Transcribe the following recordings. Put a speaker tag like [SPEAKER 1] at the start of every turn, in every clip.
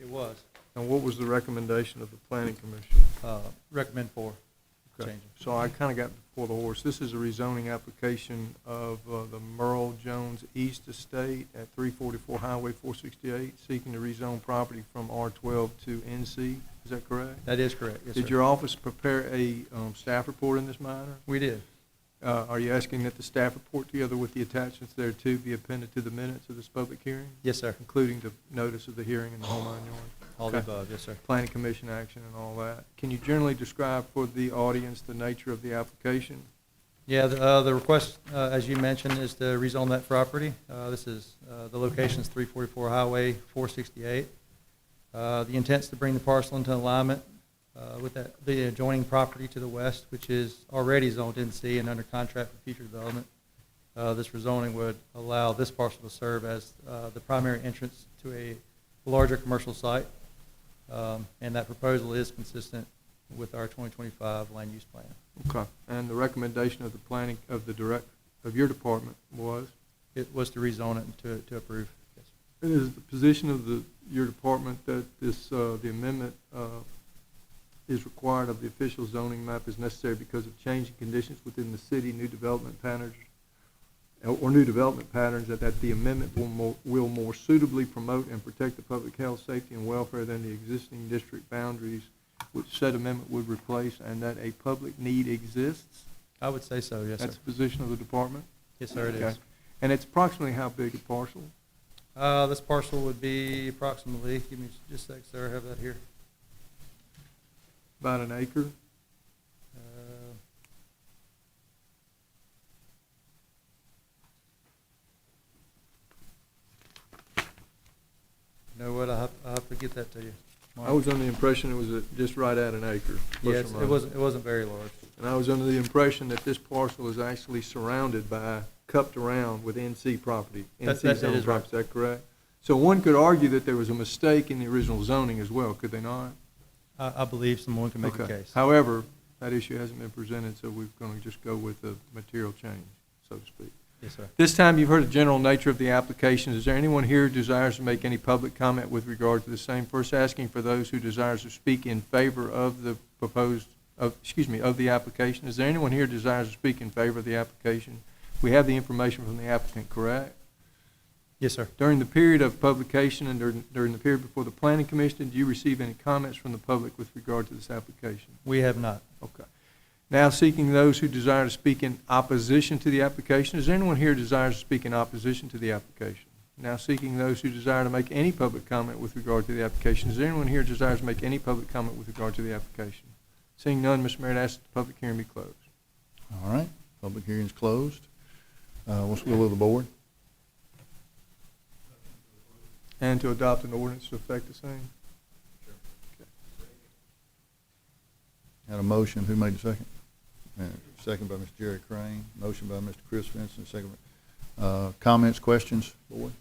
[SPEAKER 1] It was,
[SPEAKER 2] And what was the recommendation of the planning commission?
[SPEAKER 1] uh, recommend for
[SPEAKER 2] Okay.
[SPEAKER 1] change. it.
[SPEAKER 2] So I kind of got before the horse. This is a rezoning application of uh, the Merle Jones East Estate at 344 Highway 468, seeking to rezone property from R12 to NC. Is that correct?
[SPEAKER 1] That is correct, yes,
[SPEAKER 2] Did
[SPEAKER 1] sir.
[SPEAKER 2] your office prepare a um, staff report in this matter?
[SPEAKER 1] We did,
[SPEAKER 2] Uh, Are you asking that the staff report together with the attachments thereto be appended to the minutes of this public hearing,
[SPEAKER 1] yes, sir,
[SPEAKER 2] including the notice of the hearing in the home on yard?
[SPEAKER 1] Oh. all the
[SPEAKER 2] Okay.
[SPEAKER 1] above, yes, sir.
[SPEAKER 2] planning commission action and all that. Can you generally describe for the audience the nature of the application?
[SPEAKER 1] Yeah, the, uh, the request, uh, as you mentioned, is to rezone that property. Uh, this is, uh, the location's three forty-four Highway four sixty-eight. Uh, the intent's to bring the parcel into alignment, uh, with that, the adjoining property to the west, which is already zoned NC and under contract for future development. Uh, this rezoning would allow this parcel to serve as, uh, the primary entrance to a larger commercial site. Um, and that proposal is consistent with our twenty twenty-five land use plan.
[SPEAKER 2] Okay. And the recommendation of the planning, of the direct, of your department was?
[SPEAKER 1] It was to rezone it and to, to approve. Yes.
[SPEAKER 2] And is the position of the, your department that this, uh, the amendment, uh, is required of the official zoning map is necessary because of changing conditions within the city, new development patterns, or new development patterns, that, that the amendment will more, will more suitably promote and protect the public health, safety, and welfare than the existing district boundaries which said amendment would replace, and that a public need exists?
[SPEAKER 1] I would say so, yes, sir.
[SPEAKER 2] That's the position of the department?
[SPEAKER 1] Yes, sir, it
[SPEAKER 2] Okay.
[SPEAKER 1] is.
[SPEAKER 2] And it's approximately how big a parcel?
[SPEAKER 1] Uh, this parcel would be approximately, give me just a sec, sir, I have that here.
[SPEAKER 2] About an acre?
[SPEAKER 1] Uh, You know what, I'll have, I'll have to get that to you.
[SPEAKER 2] I was under the impression it was uh, just right at an acre. plus or
[SPEAKER 1] Yes, it
[SPEAKER 2] minus.
[SPEAKER 1] wasn't, it wasn't very large.
[SPEAKER 2] And I was under the impression that this parcel is actually surrounded by, cupped around with NC property,
[SPEAKER 1] That- that-
[SPEAKER 2] NC
[SPEAKER 1] that
[SPEAKER 2] zone
[SPEAKER 1] is
[SPEAKER 2] property, is that correct? So one could argue that there was a mistake in the original zoning as well, could they not?
[SPEAKER 1] I, I believe someone can make a
[SPEAKER 2] Okay.
[SPEAKER 1] case.
[SPEAKER 2] However, that issue hasn't been presented, so we're going to just go with the material change, so to speak.
[SPEAKER 1] Yes, sir.
[SPEAKER 2] This time, you've heard the general nature of the application. Is there anyone here who desires to make any public comment with regard to the same? First, asking for those who desires to speak in favor of the proposed, of, excuse me, of the application. Is there anyone here who desires to speak in favor of the application? We have the information from the applicant, correct?
[SPEAKER 1] Yes, sir.
[SPEAKER 2] During the period of publication and during, during the period before the planning commission, do you receive any comments from the public with regard to this application?
[SPEAKER 1] We have not.
[SPEAKER 2] Okay. Now seeking those who desire to speak in opposition to the application. Is there anyone here who desires to speak in opposition to the application? Now seeking those who desire to make any public comment with regard to the application. Is there anyone here who desires to make any public comment with regard to the application? Seeing none, Mr. Mayor, I ask that the public hearing be closed.
[SPEAKER 3] All right, public hearing's closed. Uh, What's the will of the board?
[SPEAKER 2] And to adopt an ordinance to effect the same.
[SPEAKER 3] Had a motion, who made the second? Uh, Second by Mr. Jerry Crane, motion by Mr. Chris Vincent, second by, uh, comments, questions, board?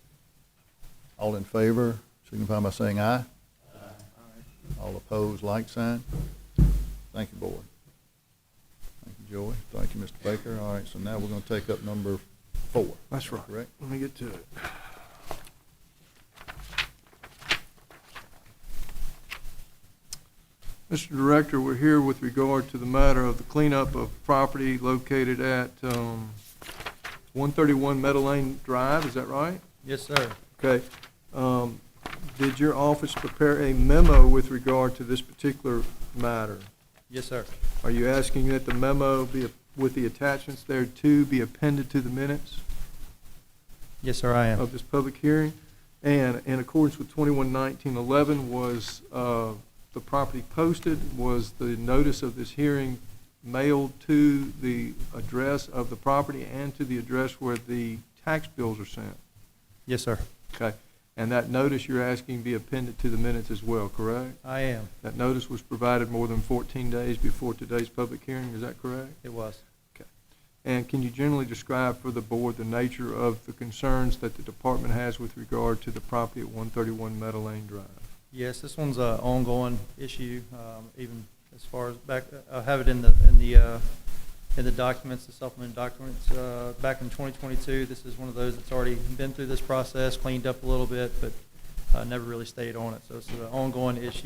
[SPEAKER 3] All in favor, signify by saying aye. All opposed, like sign. Thank you, board. Thank you, Joy. Thank you, Mr. Baker. All right, so now we're gonna take up number four.
[SPEAKER 2] That's right.
[SPEAKER 3] Correct?
[SPEAKER 2] Let me get to it. Mr. Director, we're here with regard to the matter of the cleanup of property located at um, 131 Meadow Lane Drive, is that right?
[SPEAKER 1] Yes, sir.
[SPEAKER 2] Okay. Um, Did your office prepare a memo with regard to this particular matter?
[SPEAKER 1] Yes, sir.
[SPEAKER 2] Are you asking that the memo be, with the attachments thereto, be appended to the minutes?
[SPEAKER 1] Yes, sir, I am.
[SPEAKER 2] of this public hearing. And in accordance with twenty-one nineteen eleven, was, uh, the property posted? Was the notice of this hearing mailed to the address of the property and to the address where the tax bills are sent?
[SPEAKER 1] Yes, sir.
[SPEAKER 2] Okay. And that notice you're asking be appended to the minutes as well, correct?
[SPEAKER 1] I am.
[SPEAKER 2] That notice was provided more than fourteen days before today's public hearing, is that correct?
[SPEAKER 1] It was.
[SPEAKER 2] And can you generally describe for the board the nature of the concerns that the department has with regard to the property at 131 Meadow Lane Drive?
[SPEAKER 1] Yes, this one's a ongoing issue, um, even as far as back, I have it in the, in the, uh, in the documents, the supplement documents, uh, back in 2022. This is one of those that's already been through this process, cleaned up a little bit, but uh, never really stayed on it. So it's an ongoing issue.